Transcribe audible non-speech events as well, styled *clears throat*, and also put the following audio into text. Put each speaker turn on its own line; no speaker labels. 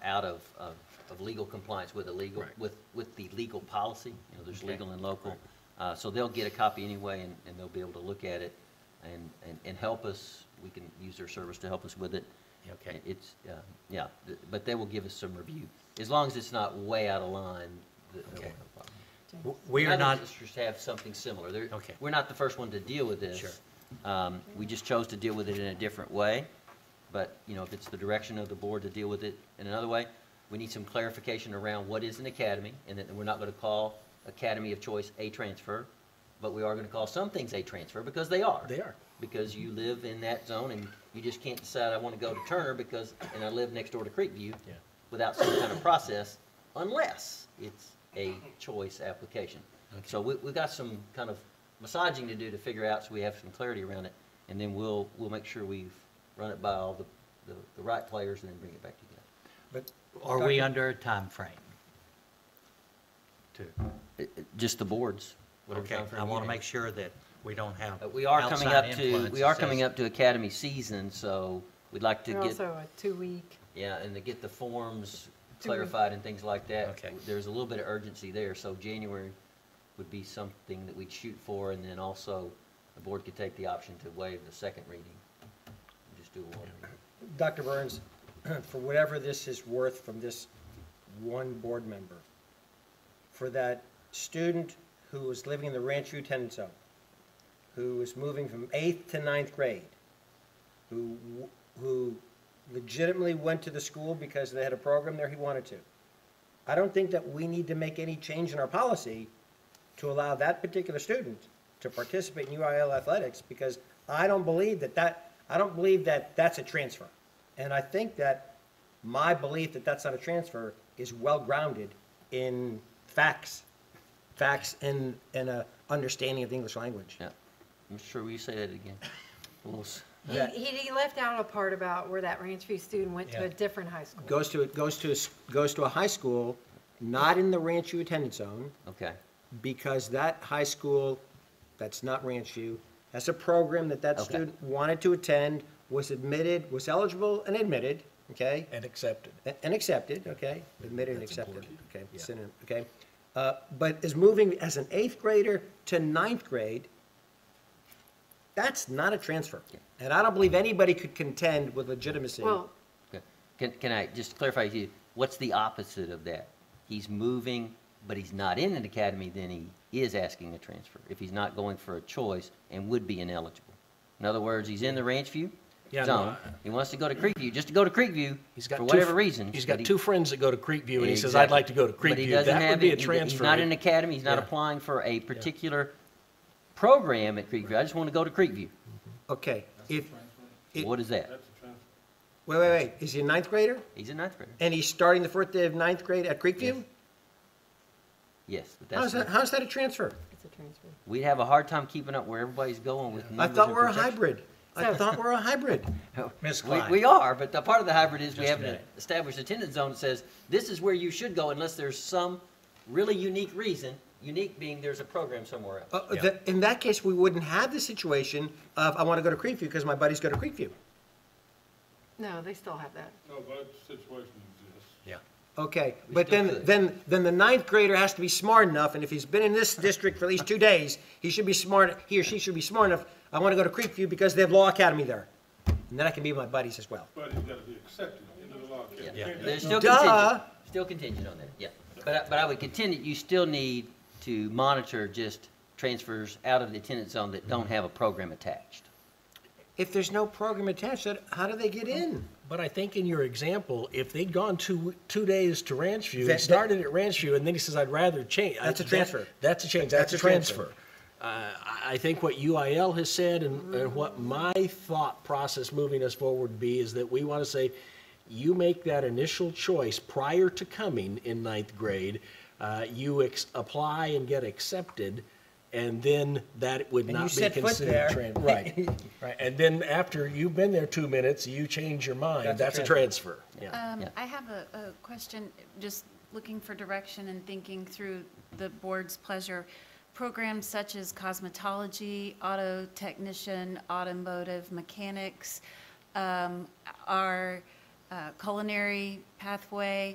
out of, of, of legal compliance with the legal,
Right.
with, with the legal policy. You know, there's
Okay.
legal and local. Uh, so they'll get a copy anyway and, and they'll be able to look at it and, and, and help us. We can use their service to help us with it.
Okay.
It's, uh, yeah, th- but they will give us some review. As long as it's not way out of line, th- there won't
Okay.
be a problem.
W- We are
Other
not,
districts have something similar. They're-
Okay.
We're not the first one to deal with this.
Sure.
Um, We just chose to deal with it in a different way, but, you know, if it's the direction of the board to deal with it in another way, we need some clarification around what is an academy, and that we're not going to call academy of choice a transfer, but we are going to call some things a transfer, because they are.
They are.
Because you live in that zone, and you just can't decide, I want to go to Turner because, and I live next door to Creekview,
Yeah.
without some kind of process, unless it's a choice application. So we, we've got some kind of massaging to do to figure out, so we have some clarity around it, and then we'll, we'll make sure we've run it by all the, the, the right players, and then bring it back to you guys.
but are we under a time frame? To,
It- it- Just the boards. whatever
okay,
timeframe
I
you
want to
need.
make sure that we don't have.
Uh, We are coming
outside
up to,
influence
we
that
are
says-
coming up to academy season, so we'd like to
They're
get,
also a two-week,
yeah, and to get the forms
Do we-
clarified and things like that.
Okay.
There's a little bit of urgency there, so January would be something that we'd shoot for, and then also the board could take the option to waive the second reading. and Just do a one reading.
Dr. Burns, *clears throat* for whatever this is worth from this one board member, for that student who is living in the Rancho Tenant Zone, who is moving from eighth to ninth grade, who, w- who legitimately went to the school because they had a program there he wanted to. I don't think that we need to make any change in our policy to allow that particular student to participate in UIL athletics, because I don't believe that that, I don't believe that that's a transfer. And I think that my belief that that's not a transfer is well-grounded in facts, facts and, and a understanding of the English language.
Yeah, I'm sure we say that again. *laughs* We'll s-
he,
Yeah.
he he left out a part about where that Ranch View student went to
Yeah.
a different high school.
Goes to, goes to, a s- goes to a high school, not in the Rancho attendance zone,
Okay,
because that high school, that's not Ranch View, has a program that that
Okay.
student wanted to attend, was admitted, was eligible and admitted, okay?
And accepted.
A- And accepted, okay? Admitted and
That's
accepted,
important.
okay?
Yeah.
synonym, Okay? Uh, But is moving as an eighth grader to ninth grade, that's not a transfer. And I don't believe anybody could contend with legitimacy.
Well,
okay. Can, can I just clarify with you, what's the opposite of that? He's moving, but he's not in an academy, then he is asking a transfer, if he's not going for a choice and would be ineligible. In other words, he's in the Ranch View
Yeah, no,
zone,
I-
he wants to go to Creekview, just to go to Creekview,
He's got
for
two-
whatever reason.
He's
but
got
he-
two friends that go to Creekview, and he says, I'd like to go to
Exactly. But he
Creekview.
doesn't
That
have
would be
it.
a
He-
transfer.
He's not in an academy, he's not
Yeah.
applying for a particular program at Creekview, I just want to go to Creekview.
Okay, if, It-
What is that?
wait, wait, wait, is he a ninth grader?
He's a ninth grader,
And he's starting the fourth day of ninth grade at Creekview?
Yes. yes, but that's.
How's that, how's that a transfer?
it's a transfer.
We'd have a hard time keeping up where everybody's going with
I
numbers.
thought
and
we're a
projections.
hybrid. I
So-
thought we're a hybrid.
*laughs*
Ms.
We-
Klein.
We are, but the part of the hybrid is we
Just a
haven't
minute.
established attendance zone that says, this is where you should go unless there's some really unique reason, unique being there's a program somewhere else.
Uh,
Yeah.
the- In that case, we wouldn't have the situation of, I want to go to Creekview because my buddies go to Creekview.
No, they still have that.
No, that situation exists.
Yeah.
Okay,
We
but
still
then,
could.
then, then the ninth grader has to be smart enough, and if he's been in this district for at least two days, he should be smart, he or she should be smart enough, I want to go to Creekview because they have Law Academy there. And then I can be with my buddies as well.
But it's gotta be accepted into the law. Can't-
Yeah.
can't-
There's still
Duh.
contingent, still contingent on that, yeah. But, I- but I would contend that you still need to monitor just transfers out of the attendance zone that
Mm-hmm.
don't have a program attached.
If there's no program attached, then how do they get in?
But I think in your example, if they'd gone two, two days to Ranch View, he
That- that-
started at Ranch View, and then he says, I'd rather change. I-
That's a
that-
transfer.
That's a change, that's a transfer. Uh, I- I think what UIL has said and, and what my thought process moving us forward would be is that we want to say, you make that initial choice prior to coming in ninth grade, uh, you ex- apply and get accepted, and then that would
And you
not be
set foot there.
considered tran- Right, *laughs* right. And then after you've been there two minutes, you change your mind,
That's
that's
a
a transfer. Yeah.
Um,
Yeah.
I have a, a question, just looking for direction and thinking through the board's pleasure. Programs such as cosmetology, auto technician, automotive mechanics, um, are uh, culinary pathway,